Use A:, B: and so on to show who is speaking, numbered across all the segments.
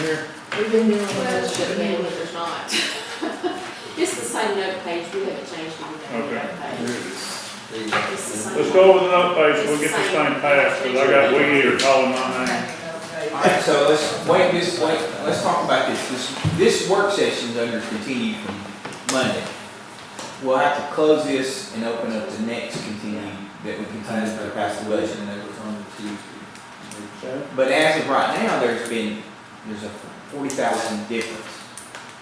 A: here?
B: We've been doing
C: Well, it
B: this
C: should
B: for
C: be,
B: years.
C: but there's not. It's the same note page, we haven't changed anything on the note
A: Okay. Here
C: page.
A: it is.
C: It's the same.
A: Let's go over the note page, we'll get this thing passed, because I got Wiggy here calling my name.
D: All right, so let's, wait, this, wait, let's talk about this, this, this work session's under continue from Monday. We'll have to close this and open up the next continue that we continue to pass the budget.
E: that was on Tuesday.
D: But as of right now, there's been, there's a forty thousand difference.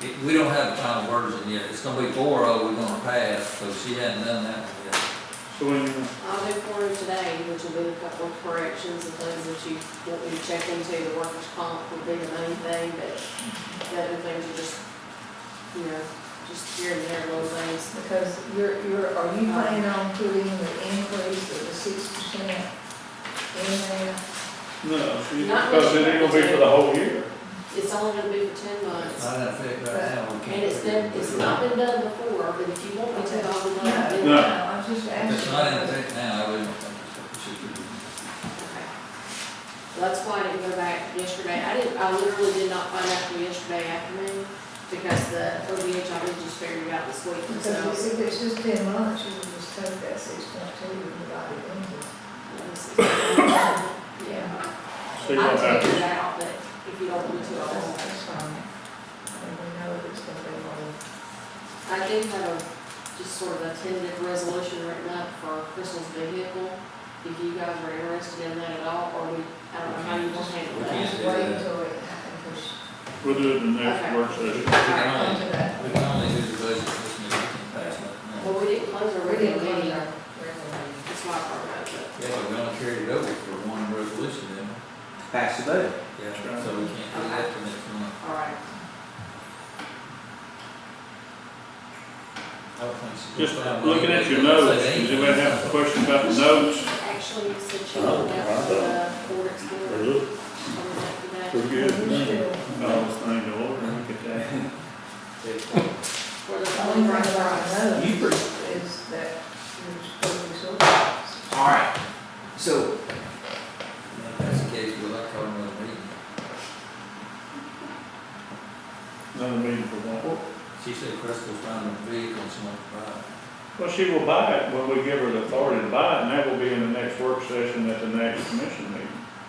E: It- We don't have the final version yet, it's gonna be four oh, we're gonna pass, so she hadn't done that one yet.
A: So when you,
C: I'll do for you today, which will be a couple of corrections and things that you want me to check into, the workers' comp would be the main thing, but the other things are just, you know, just here and there, little things.
B: Because you're, you're, are you planning on putting the increase of the six percent in there?
A: no, she- because it ain't gonna be for the whole year.
C: It's only gonna be for ten
E: It's
C: months,
E: not in effect right now, we can't.
C: and it's been, it's not been done before, but if you want me to, I'll do it.
A: No.
B: I'm just asking.
E: It's not in effect now, I wouldn't think it's- it should be.
C: Well, That's why I didn't go back yesterday. I didn't, I literally did not find out till yesterday afternoon because the OVH, I was just figured out this week
B: Because
C: themselves.
B: if it's just ten months, you would just take that six point two and divide it into.
C: Yeah. I
A: See what
C: took
A: happens.
C: it out, but if you don't want to, I
B: That's,
C: won't.
B: that's fine. And we know that it's gonna be more.
C: I do have a, just sort of a tentative resolution written up for Crystal's vehicle. If you guys are interested in that at all, or we, I don't know how you want to handle
E: We
C: that.
E: can't.
B: Just wait until it happens.
A: We'll do it in the next work session.
E: We can
B: Come
E: only,
B: to that.
E: we can only do the budget this meeting, we can pass it now.
C: Well, we didn't close our
B: We didn't go
C: regular meeting.
B: there. Regular
C: That's why I brought it up,
E: Yeah, but we only carried it over for one resolution then.
D: Pass the budget.
E: Yeah. So we can't do that till next month.
C: but, all right.
E: I don't think she-
A: Just looking at your notes, does anybody have a question about the notes?
C: Actually, you said she looked out for the Ford Explorer.
A: Pretty good.
B: meeting.
A: Oh, this thing to order, look at that.
C: For
B: The only
C: the phone
B: thing
C: right
B: that I know
D: You pre-
B: is that you're supposed to be sort of.
D: All right, so
E: If That's the case, we'll have to call another meeting.
A: Another meeting for one.
E: She said Crystal's finding a vehicle and she wants to buy it.
A: Well, she will buy it when we give her the authority to buy it, and that will be in the next work session at the next commission meeting.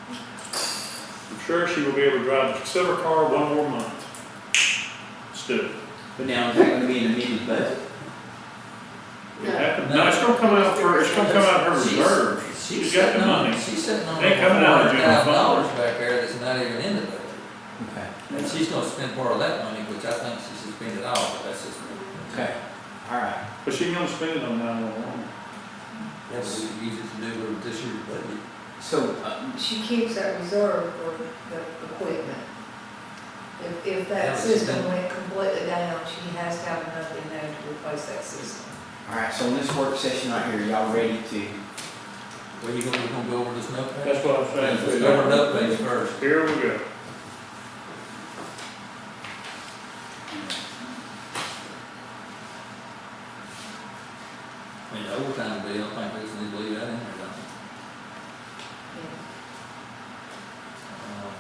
A: I'm sure she will be able to drive the silver car one more month. Still,
D: But now, is that gonna be an amended budget?
A: it happened, no, it's gonna come out for, it's gonna come out of her reserves.
E: She's
A: She's got the
E: sitting on-
A: money.
E: She's sitting on
A: They
E: four
A: coming out of
E: hundred
A: the general
E: thousand
A: fund.
E: dollars back there that's not even in the budget.
D: Okay.
E: And she's gonna spend part of that money, which I think she should spend it all, but that's just.
D: Okay, all right.
A: But she gonna spend it on nine one one.
E: That's what we use it to do with this year's budget.
D: So, uh,
B: She keeps that reserve for the equipment. If, if
E: Yeah,
B: that
E: she's
B: system
E: been-
B: went completely down, she has to have enough in there to replace that system.
D: all right, so in this work session right here, y'all ready to
E: Well, you gonna, you gonna go over this note page?
A: That's what I'm
E: Let's
A: saying.
E: go over the note page first.
A: Here we go.
E: I mean, the overtime bill, I think we need to leave that in there, don't we? Um,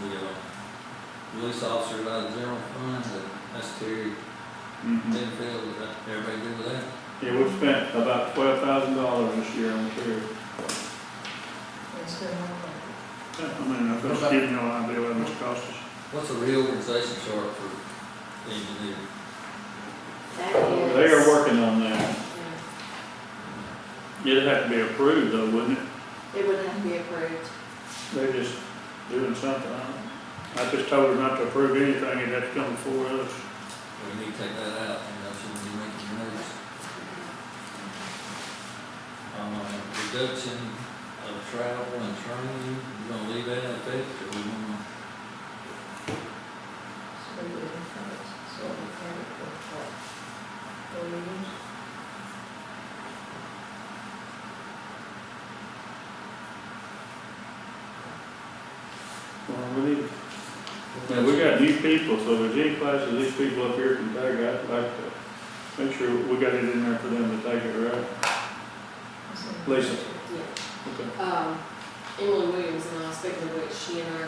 E: The, uh, police officer by the general fund, the- that's Terry
A: Mhm.
E: Benfield, is that, everybody good with that?
A: Yeah, we've spent about twelve thousand dollars this year on care.
B: It's been one
A: I mean, I'm just giving you an idea what it's cost us.
E: What's a reorganization chart for the engineer?
C: That is.
A: They are working on that.
C: Yeah.
A: It'd have to be approved though, wouldn't it?
C: It would have to be approved.
A: They're just doing something. I don't- I just told her not to approve anything, it'd have to come before us.
E: We need to take that out, and that shouldn't be making noise. Um, reduction of travel and training, you gonna leave that in effect, or we gonna?
B: so we didn't have it, so we had it for what, four years?
A: Well, we need. Now, we got new people, so if there's any classes these people up here can take, I'd like to make sure we got it in there for them to take it, right?
B: It's in-
A: Lisa.
C: Yeah.
A: Okay.
C: Um, Emily Williams and I, speaking of which, she and I are